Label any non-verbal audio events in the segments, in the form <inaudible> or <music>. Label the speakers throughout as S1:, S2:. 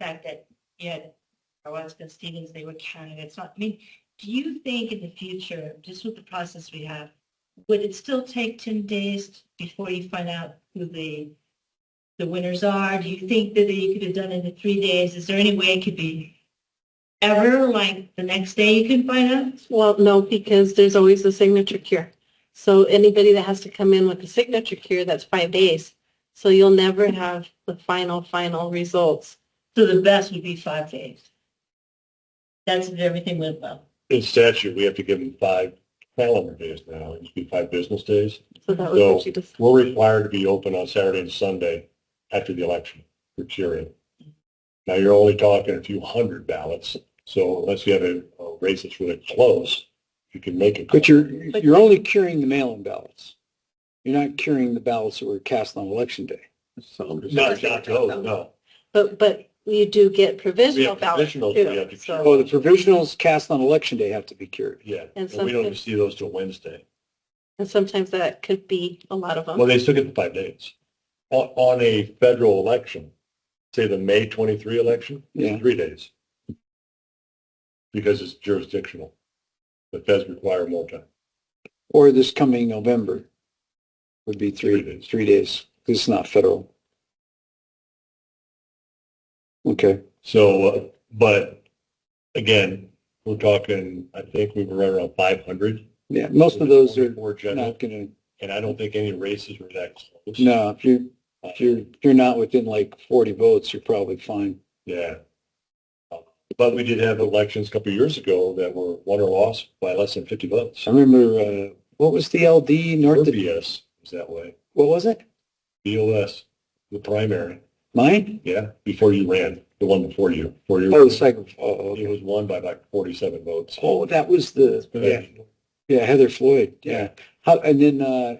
S1: fact that you had Orozco Stevens, they were candidates. Not, I mean, do you think in the future, just with the process we have, would it still take 10 days before you find out who the, the winners are? Do you think that you could have done it in three days? Is there any way it could be ever, like the next day you can find out?
S2: Well, no, because there's always the signature cure. So anybody that has to come in with the signature cure, that's five days. So you'll never have the final, final results.
S1: So the best would be five days. That's if everything went well.
S3: In statute, we have to give them five calendar days now. It used to be five business days.
S2: So that was what
S3: So-
S2: she just,
S3: We're required to be open on Saturday and Sunday after the election for curing. Now, you're only talking a few hundred ballots, so unless you have a a race that's really close, you can make it.
S4: But you're,
S2: But-
S4: you're only curing the mail-in ballots. You're not curing the ballots that were cast on election day.
S3: Not, not those, no.
S2: but, but you do get
S3: We
S2: provisional
S3: have
S2: ballots
S3: provisionals, we
S2: too.
S3: have to
S2: So
S4: Oh, the provisionals cast on election day have to be cured.
S3: Yeah,
S2: And
S3: and we don't
S2: something-
S3: see those till Wednesday.
S2: and sometimes that could be a lot of
S3: Well,
S2: them.
S3: they still get the five days. On, on a federal election, say the May 23 election,
S4: Yeah.
S3: it's three days. Because it's jurisdictional. The feds require more time.
S4: Or this coming November would be
S3: Three
S4: three,
S3: days.
S4: three days, 'cause it's not federal. Okay,
S3: So, uh, but again, we're talking, I think we were right around 500.
S4: yeah, most of those are
S3: More general,
S4: not gonna,
S3: and I don't think any races were that close.
S4: no, if you're,
S3: Uh,
S4: if you're, if you're not within like forty votes, you're probably fine.
S3: Yeah. But we did have elections a couple of years ago that were won or lost by less than 50 votes.
S4: I remember, uh, what was the LD North,
S3: BS was that way.
S4: what was it?
S3: BOS, the primary,
S4: Mine?
S3: yeah, before you ran, the one before you, before you. Uh,
S4: Oh, the second, oh, okay.
S3: It was won by like forty-seven votes.
S4: Oh, that was the, yeah, yeah, Heather Floyd, yeah. How, and then, uh,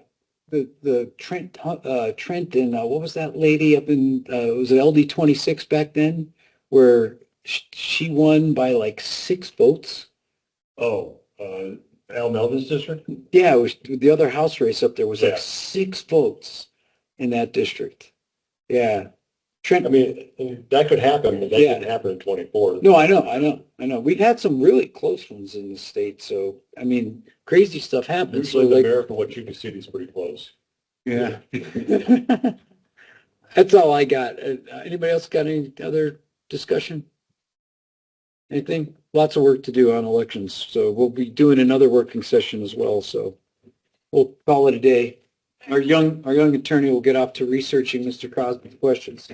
S4: the, the Trent, Hu- uh, Trent and, uh, what was that lady up in, uh, was it LD twenty-six back then? Where sh- she won by like six votes?
S3: Oh, uh, Al Melvin's district?
S4: Yeah, it was, the other house race up there was
S3: Yeah.
S4: like six votes in that district. Yeah.
S3: I
S4: Trent,
S3: mean, that could happen, but that
S4: Yeah.
S3: didn't happen in twenty-four.
S4: no, I know, I know, I know. We've had some really close ones in the state, so, I mean, crazy stuff happens. So
S3: Usually the
S4: like,
S3: mayor from Wachita City is pretty close.
S4: Yeah. <laughs> That's all I got. Uh, Anybody else got any other discussion? Anything? Lots of work to do on elections, so we'll be doing another working session as well, so we'll call it a day. Our young, our young attorney will get off to researching Mr. Crosby's questions.